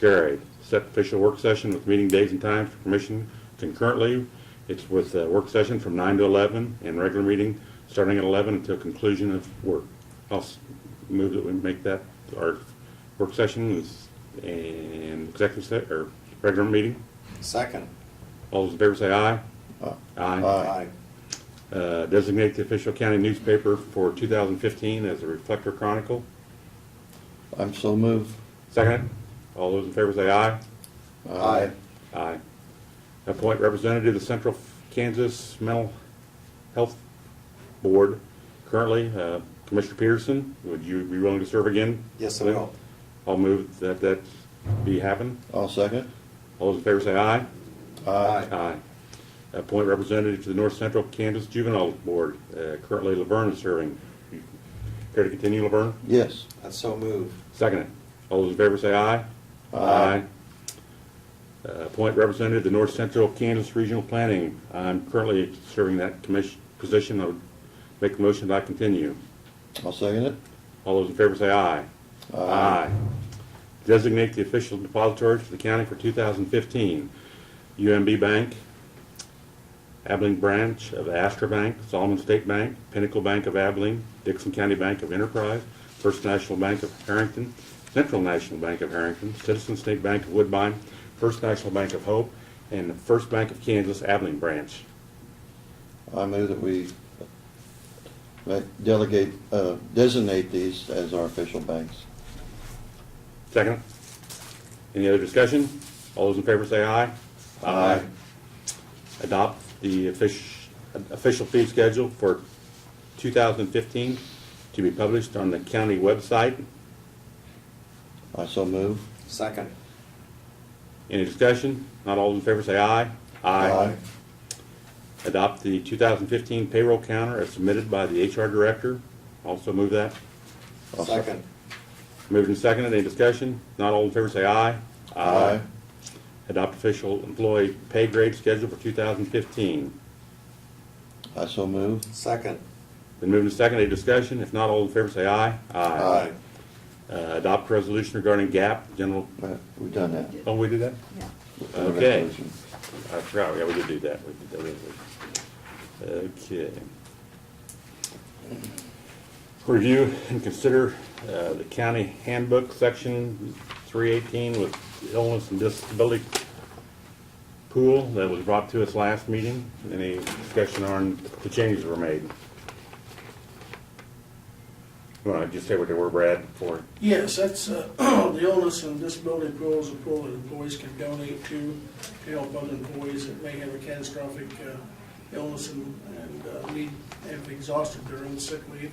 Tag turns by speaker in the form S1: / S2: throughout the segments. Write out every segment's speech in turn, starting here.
S1: Carried. Set official work session with meeting days and times for permission concurrently. It's with uh, work session from 9 to 11 and regular meeting starting at 11 until conclusion of work. I'll s- move that we make that our work session is- and executive, se- or regular meeting.
S2: Second.
S1: All those in favor say aye. Aye.
S2: Aye.
S1: Uh, Designate the official county newspaper for 2015 as the Reflector Chronicle.
S3: I'm so moved.
S1: Second. All those in favor say aye.
S2: Aye.
S1: Aye. Appoint representative to Central Kansas Mental Health Board. Currently, uh, Commissioner Peterson, would you be willing to serve again?
S2: Yes, I will.
S1: I'll move that that be happen.
S3: I'll second.
S1: All those in favor say aye.
S2: Aye.
S1: Aye. Appoint representative to the North Central Kansas Juvenile Board. Uh, Currently, Laverne is serving. You Care to continue, Laverne?
S3: Yes.
S2: I so move.
S1: Second it. All those in favor say aye. Aye. Uh, Appoint representative to North Central Kansas Regional Planning. I'm currently serving that commission, position. I would make a motion that I continue.
S3: I'll second it.
S1: All those in favor say aye. Aye. Designate the official depository for the county for 2015. UMB Bank, Abilene Branch of Astra Bank, Solomon State Bank, Pinnacle Bank of Abilene, Dixon County Bank of Enterprise, First National Bank of Harrington, Central National Bank of Harrington, Citizen State Bank of Woodbine, First National Bank of Hope, and the First Bank of Kansas Abilene Branch.
S3: I move that we uh, delegate, uh, designate these as our official banks.
S1: Second. Any other discussion? All those in favor say aye.
S3: Aye.
S1: Adopt the offic- official fee schedule for 2015 to be published on the county website.
S3: I so move.
S2: Second.
S1: Any discussion? Not all those in favor say aye.
S3: Aye.
S1: Adopt the 2015 payroll counter as submitted by the HR director. Also move that.
S3: I'll sec-
S2: Second.
S1: Moved and seconded. Any discussion? Not all in favor say aye. Adopt official employee pay grade schedule for 2015.
S3: I so move.
S2: Second.
S1: Been moved to second, any discussion? If not, all in favor say aye. Uh, Adopt resolution regarding GAP, general,
S3: Uh, We've done that.
S1: oh, we did that?
S4: Yeah.
S3: We've done the
S1: Okay.
S3: resolution.
S1: I forgot, yeah, we did do that, we did that, didn't we? Okay. Review and consider uh, the county handbook, section 318 with illness and disability pool that was brought to us last meeting. Any discussion on the changes that were made? Want to just say what they were, Brad, for,
S5: Yes, that's, uh, the illness and disability pool is a pool that employees can donate to to help other employees that may have a catastrophic uh, illness and and, uh, need, have exhausted their own sick leave.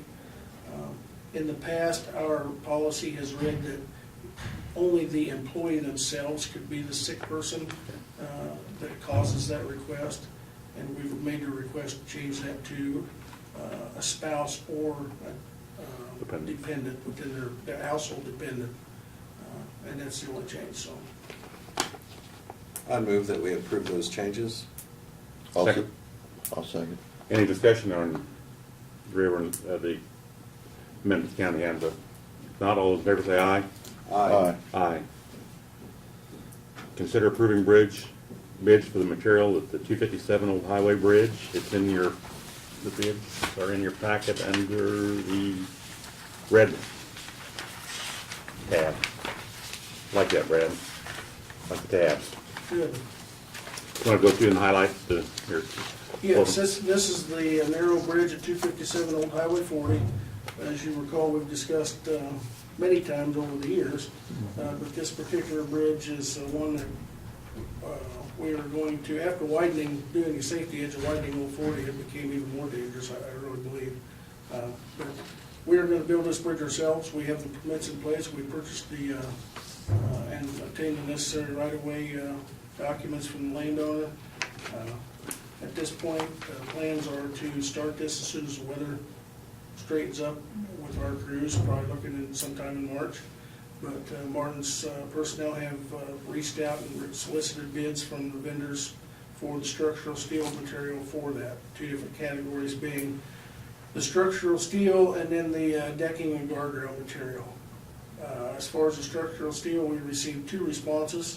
S5: Um, In the past, our policy has read that only the employee themselves could be the sick person uh, that causes that request. And we've made a request to change that to uh, a spouse or a um,
S1: Dependent.
S5: dependent within their- their household dependent. Uh, And that's the only change, so.
S2: I move that we approve those changes.
S3: I'll sec-
S1: Second.
S3: I'll second.
S1: any discussion on rear- uh the amendment to county handbook? If Not all those in favor say aye.
S3: Aye.
S1: Aye. Consider approving bridge bids for the material at the 257 Old Highway Bridge. It's in your, the bids are in your packet under the red tab. Like that, Brad. Like the tabs.
S5: Good.
S1: Want to go through and highlight the, your.
S5: Yes, this, this is the uh, narrow bridge at 257 Old Highway 40. As you recall, we've discussed uh, many times over the years, uh, but this particular bridge is uh, one that uh, we are going to, after widening, doing a safety edge of widening Old 40, it became even more dangerous, I I really believe. Uh, But We are going to build this bridge ourselves, we have the permits in place, we purchased the, uh, uh, and obtained the necessary right-of-way uh, documents from the landowner. Uh, at this point, the plans are to start this as soon as the weather straightens up with our crews, probably looking in sometime in March. But uh, Martin's uh, personnel have uh, reached out and solicited bids from the vendors for the structural steel material for that, two different categories being the structural steel and then the uh, decking and guardrail material. Uh, Uh, As far as the structural steel, we received two responses.